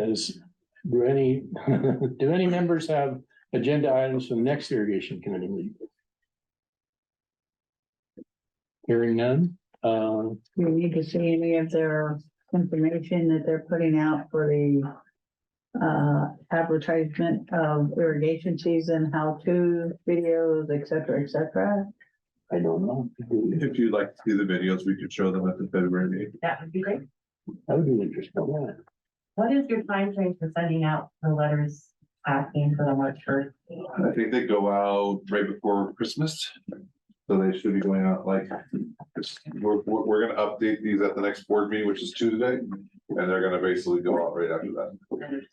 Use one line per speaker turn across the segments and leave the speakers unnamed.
Is, do any, do any members have agenda items from next irrigation committee meeting? Hearing none, uh,
Do we need to see any of their information that they're putting out for the uh, advertisement of irrigation season, how-to videos, et cetera, et cetera?
I don't know.
If you'd like to see the videos, we could show them at the February meeting.
That would be great.
That would be interesting, yeah.
What is your time frame for sending out the letters asking for the March first?
I think they go out right before Christmas. So they should be going out like, it's- we're, we're, we're gonna update these at the next board meeting, which is Tuesday. And they're gonna basically go out right after that.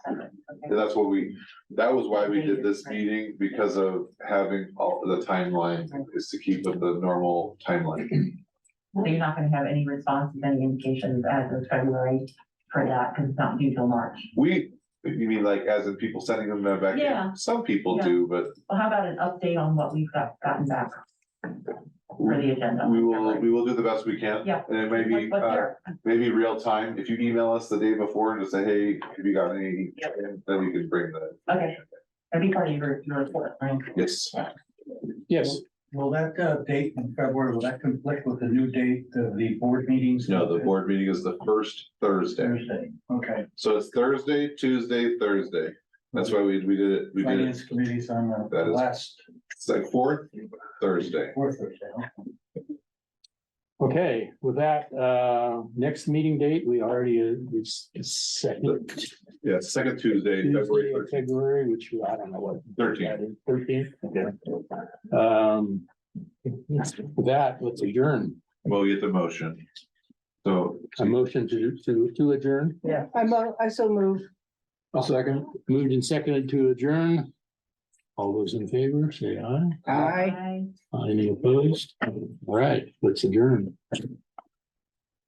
And that's what we, that was why we did this meeting, because of having all the timeline is to keep with the normal timeline.
So you're not gonna have any responses, any indications as of February for that, because it's not due till March.
We, you mean like as in people sending them back? in?
Yeah.
Some people do, but
Well, how about an update on what we've got, gotten back for the agenda?
we will, we will do the best we can.
Yeah.
And it may be,
What's
uh,
there?
maybe real time, if you email us the day before and just say, hey, have you got any?
Yep.
Then you can bring that,
Okay, that'd be part of your, your report, right?
yes,
Yes,
Will that uh, date in February, will that conflict with the new date of the board meetings?
no, the board meeting is the first Thursday,
Thursday, okay.
so it's Thursday, Tuesday, Thursday. That's why we, we did it, we did it,
Finance committees on the
That is-
last,
it's like fourth Thursday.
fourth Thursday. okay.
okay, with that, uh, next meeting date, we already, uh, it's it's second.
Yeah, second Tuesday,
Tuesday
February
of
13th.
February, which I don't know what.
Thirteenth.
Thirteen, okay. Um, with that, let's adjourn.
we'll get the motion. So,
A motion to, to, to adjourn.
Yeah, I'm, I so move.
A second. Moved and seconded to adjourn. All those in favor, say aye.
Aye.
Any opposed? All right, let's adjourn.